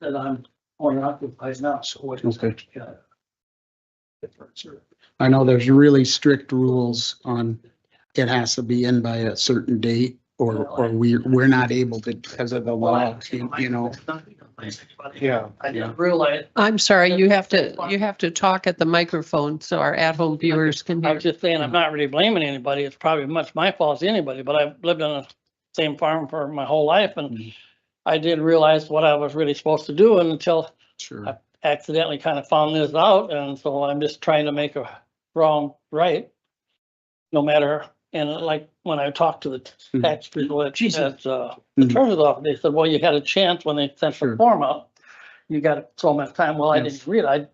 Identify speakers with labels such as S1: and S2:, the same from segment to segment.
S1: that I'm owner occupied now, so what is
S2: Okay.
S1: the difference? or-
S2: I know there's really strict rules on it has to be in by a certain date or, or we, we're not able to because of the law, you know.
S3: Yeah.
S1: I didn't realize,
S4: I'm sorry, you have to, you have to talk at the microphone so our at-home viewers can
S5: I
S4: hear.
S5: was just saying, I'm not really blaming anybody. It's probably much my fault as anybody, but I've lived on the same farm for my whole life
S2: Mm-hmm.
S5: and I didn't realize what I was really supposed to do until
S2: Sure.
S5: accidentally kind of found this out. And so I'm just trying to make a wrong right. No matter, and like when I talked to the
S2: Mhm.
S5: tax people at, at, uh,
S2: Mhm.
S5: the treasurer's office, they said, well, you had a chance when they sent
S2: Sure.
S5: the form out. You got so much time. Well, I
S2: Yes.
S5: didn't read, I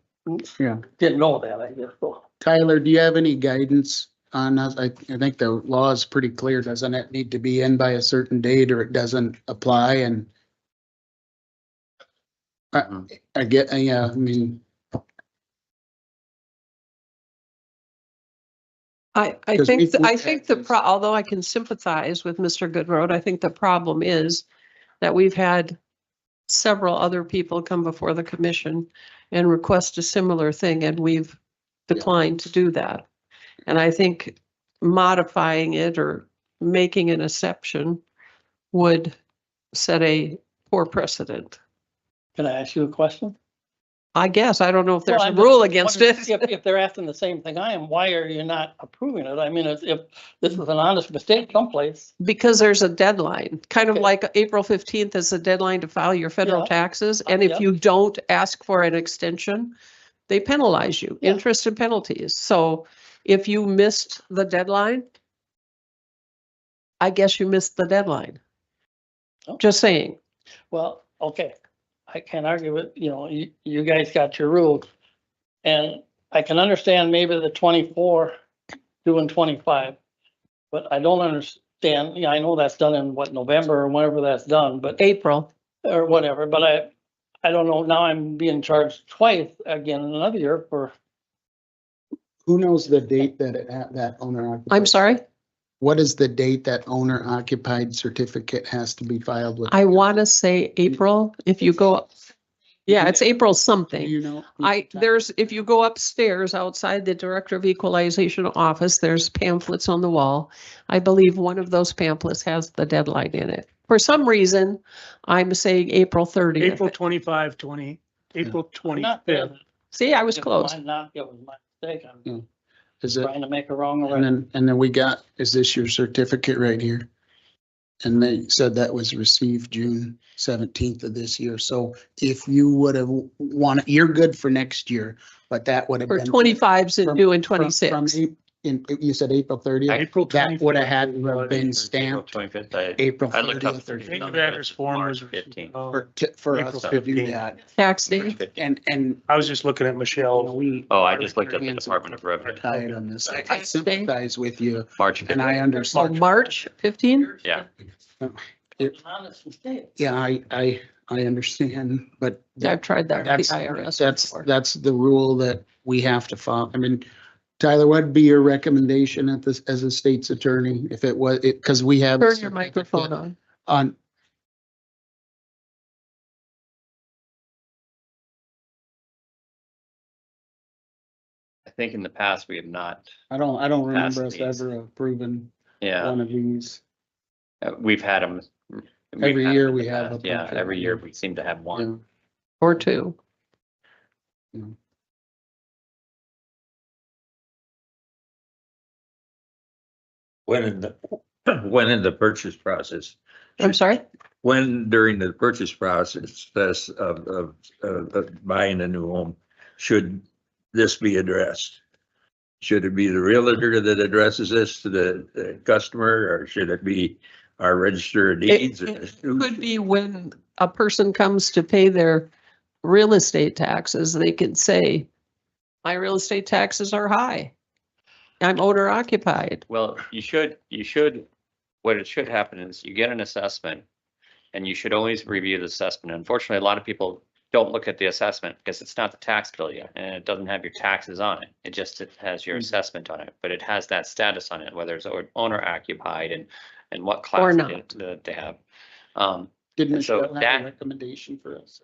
S2: Yeah.
S5: didn't know that, I guess. So
S2: Tyler, do you have any guidance on us? I, I think the law is pretty clear. Doesn't it need to be in by a certain date or it doesn't apply and? I, I get, yeah, I mean,
S4: I, I
S2: Because we
S4: think, th-
S2: do
S4: I think the,
S2: taxes.
S4: pro although I can sympathize with Mr. Goodroad, I think the problem is that we've had several other people come before the commission and request a similar thing, and we've declined to do that. And I think modifying it or making an exception would set a poor precedent.
S5: can I ask you a question?
S4: I guess, I don't know if there's
S5: Well,
S4: a
S5: I'm just
S4: rule against
S5: wondering
S4: it.
S5: If, if they're asking the same thing I am, why are you not approving it? I mean, if, if this is an honest mistake someplace,
S4: Because there's a deadline, kind of
S5: Okay.
S4: like April fifteenth is the deadline to file your federal
S5: Yeah.
S4: taxes,
S5: Uh,
S4: and if
S5: yeah.
S4: you don't ask for an extension, they penalize you,
S5: Yeah.
S4: interest and penalties. So if you missed the deadline, I guess you missed the deadline.
S5: Oh.
S4: Just saying,
S5: well, okay, I can't argue with, you know, you, you guys got your rules. And I can understand maybe the twenty-four doing twenty-five, but I don't understand, yeah, I know that's done in what, November or whenever that's done, but
S4: April,
S5: or whatever, but I, I don't know, now I'm being charged twice again in another year for
S2: who knows the date that it, ha- that owner? occupied-
S4: I'm sorry,
S2: What is the date that owner occupied certificate has to be filed with?
S4: I want to say April, if you go, yeah, it's April
S2: Do
S4: something.
S2: you know?
S4: I, there's, if you go upstairs outside the Director of Equalization office, there's pamphlets on the wall. I believe one of those pamphlets has the deadline in it. For some reason, I'm saying April thirtieth.
S3: April twenty-five, twenty, April
S5: Not that
S3: twenty-fifth.
S4: See, I was
S5: If
S4: close.
S5: mine Not, it was my mistake. I'm
S2: Is it?
S5: trying to make a wrong
S2: And
S5: right.
S2: then, and then we got, is this your certificate right here? And they said that was received June seventeenth of this year. So if you would have wanted, you're good for next year, but that would have
S4: For
S2: been.
S4: twenty-fives and
S2: From-
S4: due in
S2: from- from
S4: twenty-six.
S2: Ap- In, you said April thirtieth,
S3: April
S2: that would have
S3: twenty-fifth.
S2: had to have been stamped
S6: Twenty-fifth, I,
S2: April
S6: I looked up
S2: thirtieth.
S6: thirty.
S3: Change of address form was.
S6: Fifteen.
S3: Oh,
S2: For, to- for
S3: April
S2: us to do
S3: 15th.
S2: that.
S4: Tax day.
S2: And, and
S3: I was just looking at
S2: you know,
S3: Michelle.
S2: we
S6: Oh, I just looked up the
S2: Variance of-
S6: Department of
S2: are
S6: Revenue,
S2: tied on this. I- I
S4: Tax day.
S2: sympathize with you
S6: March
S2: and I
S6: fifth.
S4: So
S2: understand.
S4: March fifteen?
S6: Yeah.
S5: It's an honest mistake.
S2: Yeah, I, I, I understand, but.
S4: I've tried that with
S2: That's,
S4: the IRS.
S2: that's,
S4: before.
S2: that's the rule that we have to follow. I mean, Tyler, what'd be your recommendation at this, as a state's attorney, if it was, it, because we have.
S4: Turn your microphone on.
S2: On,
S6: I think in the past we have not,
S2: I don't, I don't
S6: Past
S2: remember us
S6: these.
S2: ever approving
S6: yeah,
S2: one of these.
S6: uh, we've had them.
S2: Every year we have a
S6: Yeah,
S2: bunch of
S6: every
S2: them.
S6: year we seem to have
S2: you
S6: one.
S2: know.
S4: Or two.
S7: When in the, when in the purchase process,
S4: I'm sorry?
S7: when during the purchase process of, of, of of buying a new home, should this be addressed? Should it be the realtor that addresses this to the the customer, or should it be our register of
S4: It
S7: deeds?
S4: it could be when a person comes to pay their real estate taxes, they could say, my real estate taxes are high. I'm owner occupied.
S6: Well, you should, you should, what it should happen is you get an assessment and you should always review the assessment. Unfortunately, a lot of people don't look at the assessment because it's not the tax bill yet and it doesn't have your taxes on it. It just it has
S4: Mm-hmm.
S6: your
S2: Mhm.
S6: assessment on it, but it has that status on it, whether it's o- owner occupied and, and what
S4: Or
S6: class it-
S4: not.
S6: that they have. Um,
S2: Did
S6: And so
S2: Michelle have
S6: that-
S2: a recommendation for us?